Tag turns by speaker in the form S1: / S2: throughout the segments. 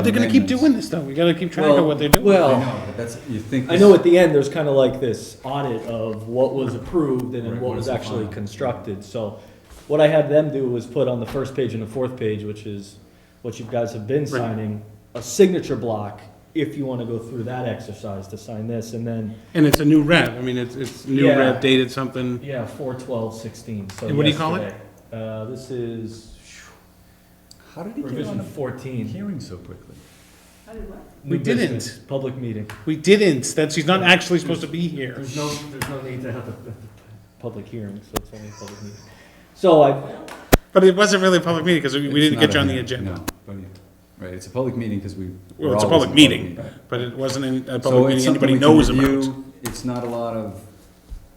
S1: But they're gonna keep
S2: amendments.
S1: doing this though, we gotta keep track of what they're doing.
S2: I
S3: Well,
S2: know, but that's, you think.
S3: I know at the end, there's kind of like this audit of what was approved and
S2: Right,
S3: then what
S2: what
S3: was
S2: is the
S3: actually
S2: final?
S3: constructed, so what I had them do was put on the first page and the fourth page, which is what you guys have been signing, a signature block, if you want to go through that exercise to sign this, and then,
S1: And it's a new rev, I mean, it's, it's new
S3: Yeah.
S1: rev dated something,
S3: yeah, four twelve sixteen, so
S1: And what do you call it?
S3: yesterday. Uh, this is
S2: How did he get on
S3: revision
S2: the
S3: fourteen.
S2: hearing so quickly?
S1: We
S3: New business, Public meeting,
S1: we didn't, that she's not actually supposed to be here.
S3: There's no, there's no need to have a public hearing, so it's only a public meeting. So I,
S1: But it wasn't really a public meeting, because we we
S2: It's
S1: didn't get
S2: not
S1: you
S2: a
S1: on the
S2: hearing,
S1: agenda.
S2: no, but you- Right, it's a public meeting because we.
S1: Well,
S2: we're
S1: it's a
S2: always
S1: public meeting,
S2: meeting.
S1: but it wasn't any- a
S2: So
S1: public
S2: it's
S1: meeting
S2: something
S1: anybody
S2: we
S1: knows
S2: can
S1: about.
S2: review. It's not a lot of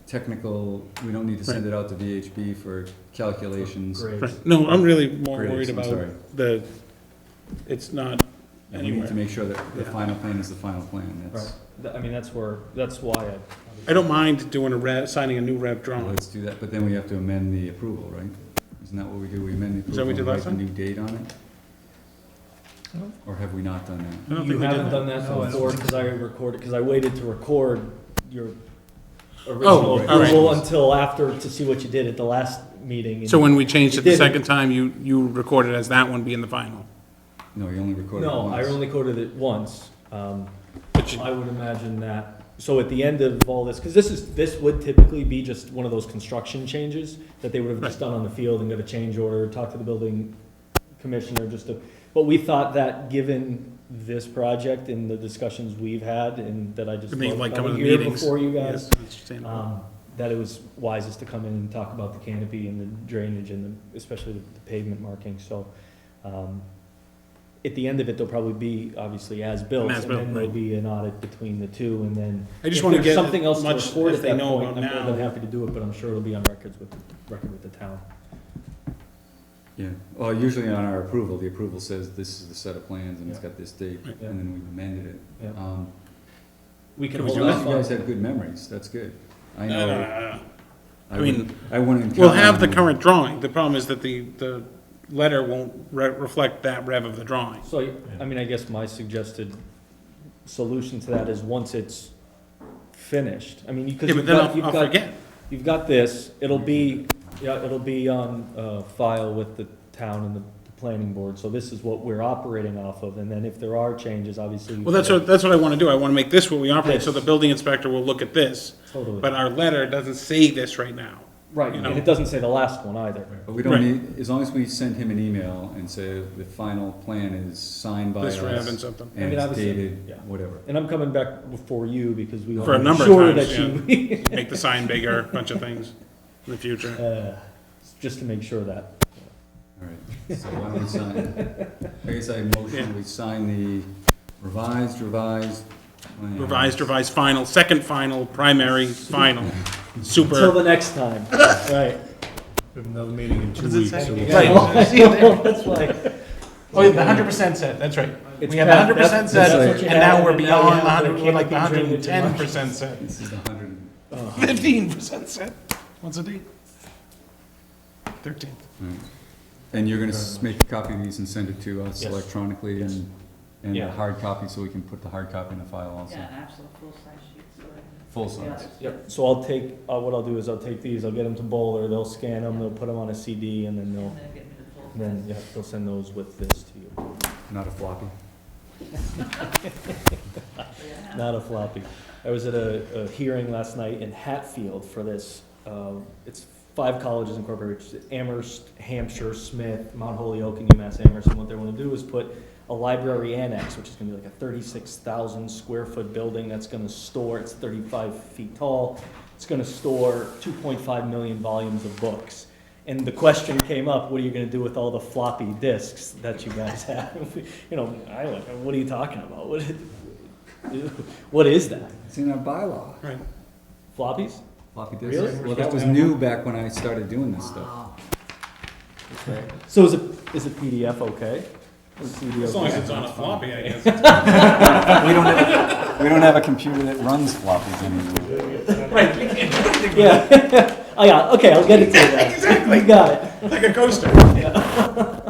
S2: technical, we don't need to send it out to VHB for calculations.
S3: great.
S1: Right. No, I'm really more
S2: Grades,
S1: worried
S2: I'm
S1: about
S2: sorry.
S1: the, it's not
S2: And we need to
S1: anywhere.
S2: make sure that the
S1: Yeah.
S2: final plan is the final plan.
S3: Right,
S2: That's,
S3: Th- I mean, that's where, that's why I,
S1: I don't mind doing a rev, signing a new rev drawing.
S2: let's do that, but then we have to amend the approval, right? Isn't that what we do? We amend the
S1: Is that
S2: approval
S1: what we
S2: and
S1: did last
S2: write a new date on it?
S3: No.
S2: Or have we not done that?
S1: I don't
S3: you
S1: think we did
S3: haven't done that
S2: No, I don't
S3: before,
S2: think
S3: because I recorded, because I waited to record your
S1: all
S3: original
S1: Oh, right.
S3: approval until after, to see what you did at the last meeting. and-
S1: So when we changed
S3: You
S1: it the
S3: didn't.
S1: second time, you, you recorded as that one being the final.
S2: No, you only recorded it
S3: No, I
S2: once.
S3: only coded it once, um,
S1: But you-
S3: I would imagine that, so at the end of all this, because this is, this would typically be just one of those construction changes that they would have just done on the field and got a change order, talk to the building commissioner, just to, but we thought that given this project and the discussions we've had and that I just
S1: I mean,
S3: love
S1: like coming to
S3: here
S1: meetings.
S3: Before you
S1: Yes,
S3: guys,
S1: understandable.
S3: um, that it was wisest to come in and talk about the canopy and the drainage and the, especially the pavement marking, so, um, at the end of it, there'll probably be, obviously, as-built,
S1: An
S3: and
S1: as-built,
S3: then there'll
S1: right.
S3: be an audit between the two, and then.
S1: I just
S3: if
S1: wanna
S3: there's
S1: get
S3: Something else to
S1: much
S3: report
S1: if
S3: at
S1: they
S3: that
S1: know
S3: point, I'm
S1: about
S3: more
S1: now.
S3: than happy to do it, but I'm sure it'll be on records with, record with the town.
S2: Yeah, well, usually on our approval, the approval says this is the set of plans and it's
S3: Yeah.
S2: got this date,
S1: Right.
S2: and then we amended
S3: Yeah.
S2: it. Um,
S3: We can
S1: Can we
S3: hold
S1: do
S2: Unless
S3: off
S2: you guys
S3: on,
S2: have good memories, that's good. I
S1: No, no, no,
S2: know,
S1: no, no.
S2: I
S1: I
S2: wouldn't,
S1: mean,
S2: I wouldn't.
S1: Uh, We'll
S2: count
S1: have
S2: on
S1: the
S2: you.
S1: current drawing, the problem is that the, the letter won't re- reflect that rev of the drawing.
S3: so, I mean, I guess my suggested solution to that is once it's finished, I mean, because
S1: Yeah, but
S3: you've
S1: then
S3: got,
S1: I'll,
S3: you've
S1: I'll
S3: got
S1: forget.
S3: You've got this, it'll be, yeah, it'll be on, uh, file with the town and the, the planning board, so this is what we're operating off of, and then if there are changes, obviously.
S1: Well, that's what, that's what I wanna do, I wanna make this what we operate, so the
S3: This.
S1: building inspector will look at this, but
S3: Totally,
S1: our letter doesn't say this right now.
S3: right,
S1: you
S3: and
S1: know.
S3: it doesn't say the last one either.
S2: But we
S1: Right.
S2: don't need, as long as we send him an email and say the final plan is signed by
S1: This rev and
S2: us
S1: something.
S3: I
S2: and
S3: mean,
S2: it's
S3: obviously, yeah.
S2: dated, whatever.
S3: And I'm coming back before you, because we.
S1: For a
S3: I'm
S1: number of
S3: sure
S1: times,
S3: that you-
S1: Make the sign bigger, a bunch of things in the future.
S3: Uh, Just to make sure that,
S2: All right, so why don't we sign, I guess I motion,
S1: Yeah.
S2: we sign the revised, revised. plan.
S1: Revised, revised, final, second final, primary, final,
S3: until
S1: super.
S3: the next time, right.
S4: We have another meeting in two
S1: Does it
S4: weeks.
S1: say-
S4: so
S1: you
S4: we'll-
S1: guys-
S3: That's like,
S4: Oh, yeah, the
S1: percent set, that's right.
S3: It's We have past- 100% that's- set, that's what you and now have, we're and now we beyond have the the 100
S1: hundred.
S3: we're like the canopy drainage and 110%
S1: set.
S2: This is the hundred and
S3: uh,
S1: Fifteen percent set. What's the date? Thirteenth.
S2: Alright. And you're gonna s- make a copy of these and send it to us
S3: Yes.
S2: electronically and, and a
S3: Yeah.
S2: hard copy, so we can put the hard copy in the file also?
S5: Yeah, absolute full-size sheets. so I-
S2: Full
S5: Yeah.
S2: size.
S3: Yep, so I'll take, uh, what I'll do is I'll take these, I'll get them to Bowler, they'll scan them, they'll put them on a CD, and then they'll,
S5: And then get me the full size.
S3: then, yeah, they'll send those with this to you.
S2: Not a floppy?
S5: Yeah.
S3: Not a floppy. I was at a, a hearing last night in Hatfield for this, um, it's five colleges incorporated, which is Amherst, Hampshire, Smith, Mount Holyoke, and UMass Amherst, and what they wanna do is put a library annex, which is gonna be like a thirty-six thousand square foot building that's gonna store, it's thirty-five feet tall, it's gonna store two point five million volumes of books. And the question came up, what are you gonna do with all the floppy disks that you guys have? You know, I like, what are you talking about? What, what is that?
S2: It's in our bylaw.
S1: Right.
S3: Floppies?
S2: Floppy disk.
S3: Really?
S2: Well, that was new back when I started doing this stuff.
S5: Wow.
S3: So is it, is a PDF okay? Is CD
S1: As long as
S3: okay?
S1: it's on a floppy, I guess.
S2: We don't have, we don't have a computer that runs floppies anymore.
S3: Yeah, oh yeah, okay, I'll get it to you then. You got it.
S1: Like a coaster.
S3: Uh,